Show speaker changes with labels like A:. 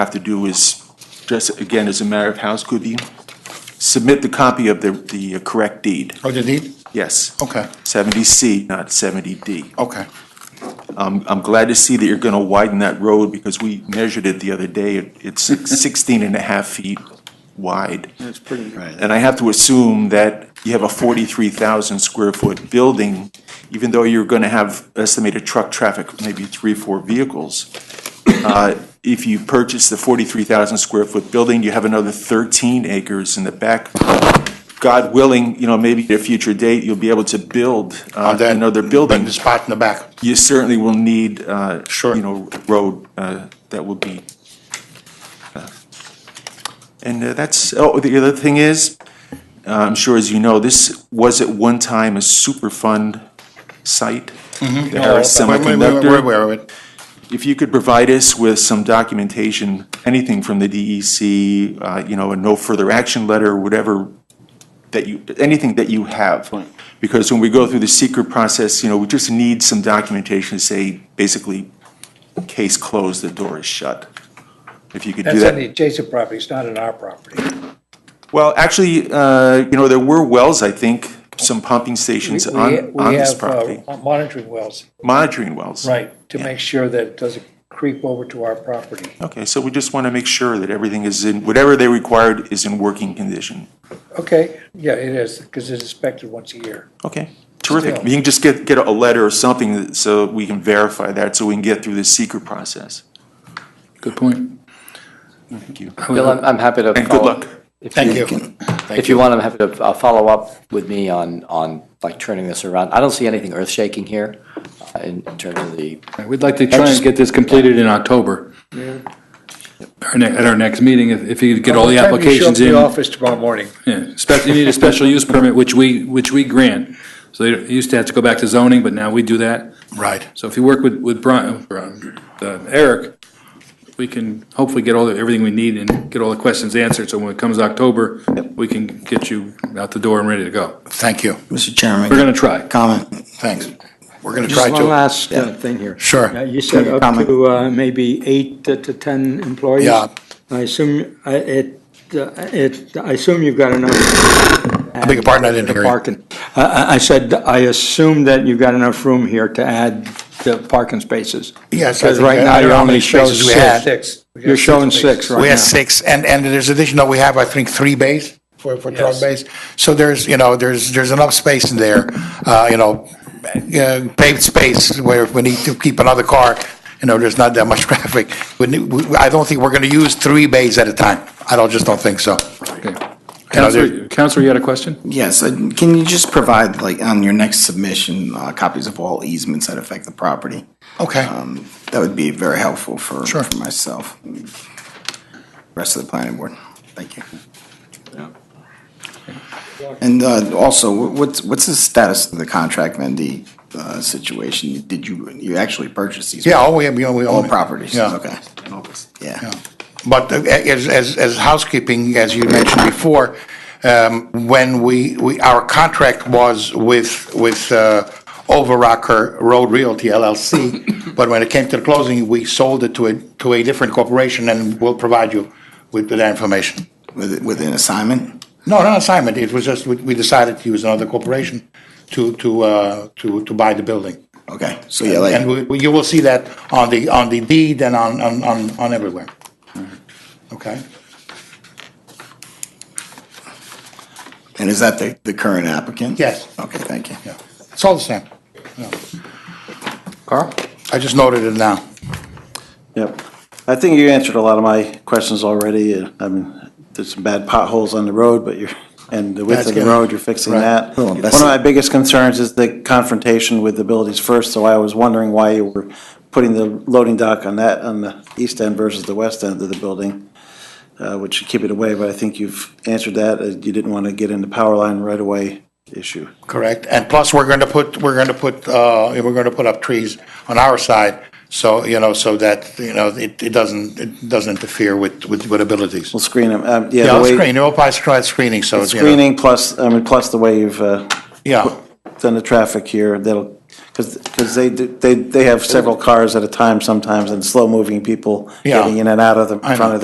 A: have to do is, just again, as a matter of house, could you submit the copy of the, the uh, correct deed?
B: Oh, the deed?
A: Yes.
B: Okay,
A: Seventy C, not seventy D.
B: okay.
A: I'm, I'm glad to see that you're gonna widen that road because we measured it the other day. It- It's 16 and a half feet wide.
C: That's pretty.
A: And I have to assume that you have a forty-three thousand square foot building, even though you're gonna have estimated truck traffic, maybe three, four vehicles. Uh, If you purchase the forty-three thousand square foot building, you have another thirteen acres in the back. God willing, you know, maybe at a future date, you'll be able to build uh,
B: On that-
A: another
B: on
A: building.
B: The spot in the back.
A: You certainly will need, uh,
B: Sure.
A: you know, road uh, that will be. uh, And uh, that's, oh, the other thing is, uh, I'm sure as you know, this was at one time a Superfund site, the Harris
B: Mm-hmm. Oh, Wait, wait, wait, wait,
A: Semiconductor.
B: Wait, wait, wait.
A: If you could provide us with some documentation, anything from the DEC, uh, you know, a no further action letter, whatever that you, anything that you have. Because when we go through the secret process, you know, we just need some documentation to say, basically, case closed, the door is shut. If you could do
C: That's on the
A: that.
C: adjacent property, it's not on our property.
A: Well, actually, uh, you know, there were wells, I think, some pumping
C: We
A: stations
C: we-
A: on,
C: we
A: on this
C: have, uh,
A: property,
C: Monitoring wells,
A: monitoring wells.
C: right, to make sure that it doesn't creep over to our property.
A: Okay, so we just want to make sure that everything is in, whatever they required is in working condition.
C: Okay, yeah, it is, because it's inspected once a year.
A: Okay, terrific.
C: Still.
A: You can just get, get a letter or something that- so we can verify that, so we can get through this secret process.
B: Good point.
A: Thank you.
D: Bill, I'm, I'm happy to.
A: And good luck.
D: follow- if
B: Thank you.
D: can-
B: Thank
D: If
B: you.
D: you want, I'm happy to uh, follow up with me on, on like turning this around. I don't see anything earth shaking here uh, in in terms of the,
E: We'd like to try and get this completed in October. Our ne- At our next meeting, if if you could get all the
C: By time you show up
E: applications
C: to
E: in.
C: The office tomorrow morning.
E: Yeah, spe- You need a special use permit, which we, which we grant. So they used to have to go back to zoning, but now we do that.
B: Right.
E: So if you work with, with Brian, Brian, uh, Eric, we can hopefully get all, the everything we need and get all the questions answered. So when it comes October, we can get you out the door and ready to go.
B: Thank you.
F: Mr. Chairman.
E: We're going to try.
F: Comment.
B: Thanks. We're going to try
G: Just one
B: to,
G: last uh, thing here.
B: Sure.
G: Uh, You said
F: Any
G: up
F: comment?
G: to uh, maybe eight to to 10 employees?
B: Yeah.
G: I assume, I- it, uh, it, I assume you've got enough. I
B: beg your pardon, I didn't hear you.
G: Parking. I- I I said, I assume that you've got enough room here to add the parking spaces.
B: yes. I
G: Because
B: think-
G: right
B: I
G: now
B: don't
G: you
B: know how many
G: only show
B: spaces we had.
G: six.
C: Six. We got
G: You're showing
C: spaces.
G: six right
B: We
G: now.
B: had six, and, and there's additional, we have, I think, three bays for, for truck
C: Yes.
B: bays. So there's, you know, there's, there's enough space in there, uh, you know, uh, paved space where if we need to keep another car, you know, there's not that much traffic. We need- we- I don't think we're going to use three bays at a time. I don't, just don't think so. You know, there-
E: Counselor, Counselor, you had a question?
F: Yes, uh, can you just provide, like, on your next submission, uh, copies of all easements that affect the property?
B: Okay,
F: Um, That would be very helpful for,
B: Sure.
F: for myself. and Rest of the planning board. Thank you. And uh, also, wh- what's, what's the status of the contract vendee uh, situation? Did you, you actually purchase these?
B: yeah, all we, we own.
F: All
B: it.
F: properties?
B: Yeah.
F: Okay. Yeah.
B: But uh, as, as, as housekeeping, as you mentioned before, um, when we, we, our contract was with, with, uh, Overrocker Road Realty LLC, but when it came to the closing, we sold it to a, to a different corporation and we'll provide you with that information.
F: With, with an assignment?
B: No, not assignment, it was just, we, we decided to use another corporation to, to, uh, to, to buy the building.
F: Okay, so yeah, like.
B: And we- we, you will see that on the, on the deed and on, on, on, on everywhere. Okay?
F: And is that the, the current applicant?
B: Yes.
F: Okay, thank you.
B: Yeah, it's all the same.
E: Carl?
B: I just noted it now.
H: Yep. I think you answered a lot of my questions already. Uh, I mean, there's some bad potholes on the road, but you're, and the width
B: That's
H: of the
B: good.
H: road, you're fixing
B: Right.
H: that.
F: Oh,
H: One
F: that's-
H: of my biggest concerns is the confrontation with the Abilities First, so I was wondering why you were putting the loading dock on that, on the east end versus the west end of the building, uh, which should keep it away, but I think you've answered that. Uh, You didn't want to get into power line right away issue.
B: Correct. And plus, we're going to put, we're going to put, uh, we're going to put up trees on our side, so, you know, so that, you know, it, it doesn't, it doesn't interfere with, with with abilities.
H: We'll screen them. Um, Yeah,
B: Yeah,
H: the
B: I'll
H: way-
B: screen, we'll probably try screening, so, you know.
H: Screening plus, I mean, plus the way you've uh,
B: Yeah,
H: done the traffic here, that'll, because Because they, do- they, they have several cars at a time sometimes and slow-moving people
B: Yeah.
H: getting in and out of the
B: I know.
H: front of